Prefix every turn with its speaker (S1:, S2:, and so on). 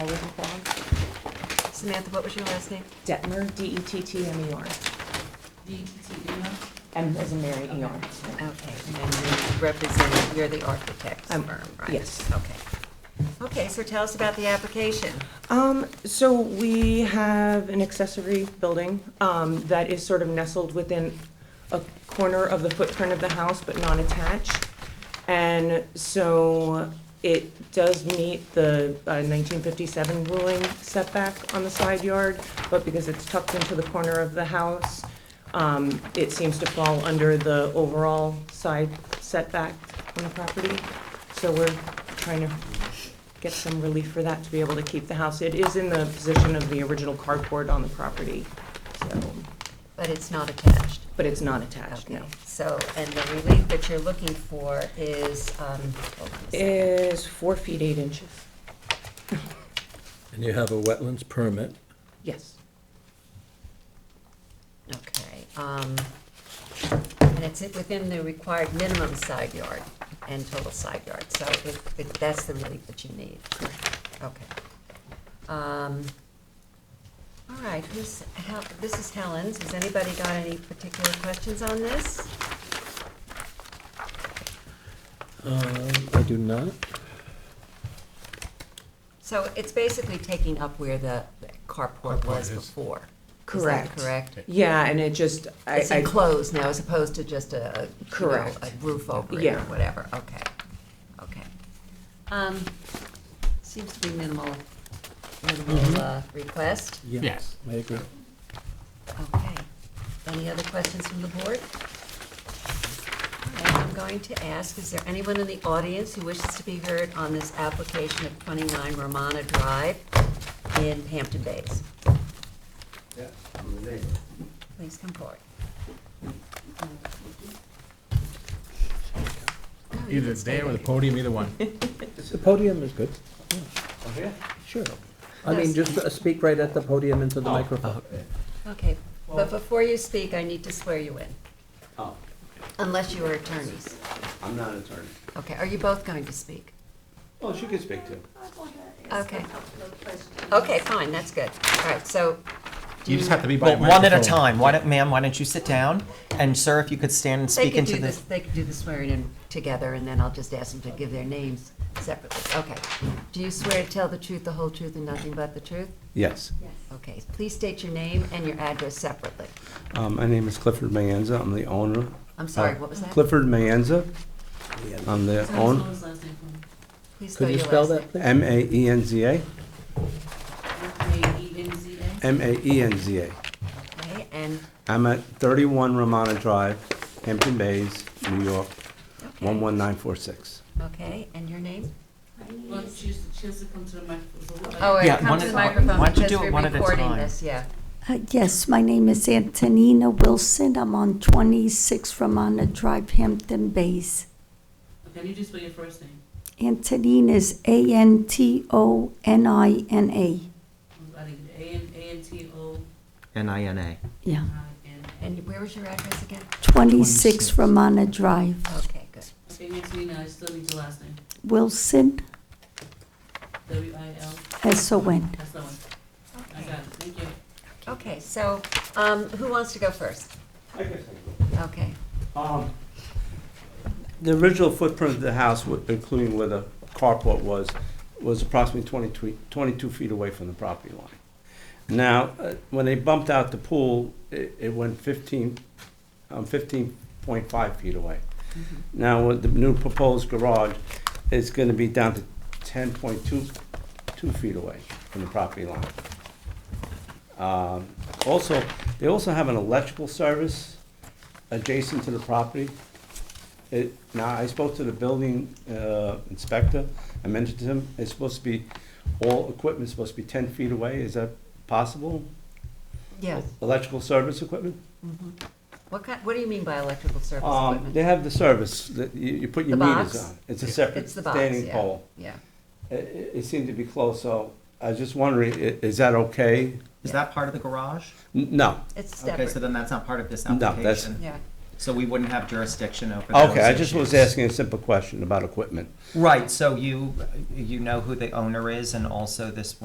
S1: I was informed.
S2: Samantha, what was your last name?
S1: Detmer, E D-E-T-T-M-E-R,
S3: DTTM?
S1: M as in Mary, E-R.
S2: Okay, and then you represent, you're the architect's
S1: Um,
S2: firm, right?
S1: yes.
S2: Okay. Okay, so tell us about the application.
S1: Um, so we have an accessory building, um, that is sort of nestled within a corner of the footprint of the house, but not attached. And so it does meet the uh, nineteen fifty-seven ruling setback on the side yard, but because it's tucked into the corner of the house, um, it seems to fall under the overall side setback on the property. So we're trying to get some relief for that, to be able to keep the house. It is in the position of the original cardboard on the property, so,
S2: But it's not attached.
S1: but it's not attached, no.
S2: Okay. So, and the relief that you're looking for is, um, hold on a second.
S1: Is four feet, eight inches.
S4: And you have a wetlands permit.
S1: Yes.
S2: Okay, um, and it's within the required minimum side yard and total side yard, so it, it, that's the relief that you need. Okay. Um, all right, who's, Hel- this is Helen's, has anybody got any particular questions on this?
S4: Um, I do not.
S2: So it's basically taking up where the carport was
S5: Carport is.
S2: before.
S1: Correct.
S2: Is that correct?
S1: Yeah, and it just, I,
S2: It's
S1: I,
S2: enclosed now as opposed to just a, a, you know,
S1: Correct.
S2: a roof over it or
S1: Yeah.
S2: whatever, okay, okay. Um, seems to be minimal,
S1: Mm-hmm.
S2: minimal, uh, request,
S5: Yes.
S4: I agree.
S2: okay. Any other questions from the board? All right, I'm going to ask, is there anyone in the audience who wishes to be heard on this application of twenty-nine Romana Drive in Hampton Bays?
S6: Yeah, I'm the neighbor.
S2: Please come forward.
S5: Either there or the podium, either one.
S4: The podium is good.
S6: Oh, yeah?
S4: Sure. I mean, just uh, speak right at the podium into the microphone.
S2: Okay, but before you speak, I need to swear you in,
S6: Oh,
S2: unless you are attorneys.
S6: I'm not an attorney.
S2: Okay, are you both going to speak?
S6: Well, she can speak too.
S2: Okay. Okay, fine, that's good. All right, so,
S5: You just have to be by
S7: Well,
S5: a
S7: one at a
S5: microphone.
S7: time. Why don't, ma'am, why don't you sit down? And sir, if you could stand and
S2: they
S7: speak
S2: could
S7: into
S2: do
S7: the.
S2: this, they could do the swearing in together, and then I'll just ask them to give their names separately. Okay. Do you swear to tell the truth, the whole truth, and nothing but the truth?
S6: Yes.
S2: Okay, please state your name and your address separately.
S6: Um, my name is Clifford Mayenza. I'm the owner.
S2: I'm sorry,
S6: Uh,
S2: what was that?
S6: Clifford Mayenza. I'm the owner.
S2: Please spell
S4: Could you
S2: your
S4: spell
S2: last
S4: that,
S2: name.
S4: please?
S6: M A E N Z A. M A E N Z A.
S2: Okay, and,
S6: I'm at 31 Ramona Drive, Hampton Bays, New York,
S2: okay.
S6: 11946.
S2: Okay, and your name?
S3: Well, she used to- she has to come to the microphone.
S2: Oh,
S7: Yeah,
S2: it
S7: one
S2: comes to
S7: at
S2: the
S7: a time.
S2: microphone
S7: Why don't you
S2: because
S7: do it
S2: we're
S7: one at a
S2: recording
S7: time?
S2: this, yeah.
S8: Uh, Yes, my name is Antonina Wilson. I'm on 26 Ramona Drive, Hampton Bays.
S3: Can you just spell your first name?
S8: Antonina is A-N-T-O-N-I-N-A.
S3: I think A N, A N T O
S7: N-I-N-A.
S8: Yeah,
S3: I N.
S2: And where was your address again?
S8: 26 Ramona Drive.
S2: Okay, good.
S3: Okay, Antonina, I still need your last name.
S8: Wilson,
S3: W I L,
S8: S-O-N.
S3: that's the one. I got it, thank you.
S2: Okay, so, um, who wants to go first?
S6: I guess
S2: Okay,
S6: Um, The original footprint of the house, wa- including where the carport was, was approximately 22 22 feet away from the property line. Now, uh, when they bumped out the pool, it it went 15, um, 15.5 feet away. Now, with the new proposed garage, it's going to be down to 10.2 two feet away from the property line. Um, Also, they also have an electrical service adjacent to the property. It, now, I spoke to the building uh, inspector, I mentioned to him, it's supposed to be, all equipment's supposed to be ten feet away, is that possible?
S2: yes.
S6: Electrical service equipment?
S2: What kind, what do you mean by electrical service
S6: Um, They
S2: equipment?
S6: have the service, that you, you put your
S2: The
S6: meters
S2: box?
S6: on. It's a separate
S2: It's the box, yeah.
S6: standing pole.
S2: Yeah,
S6: It, it it seemed to be close, so I was just wondering, i- is that okay?
S7: Is that part of the garage?
S6: N- No,
S2: it's
S7: Okay, so
S2: separate,
S7: then that's not part of this
S6: No, that's-
S7: application.
S2: yeah.
S7: So we wouldn't have jurisdiction over those
S6: okay, I just was
S7: issues.
S6: asking a simple question about equipment.
S7: Right, so you, you know who the owner is and also this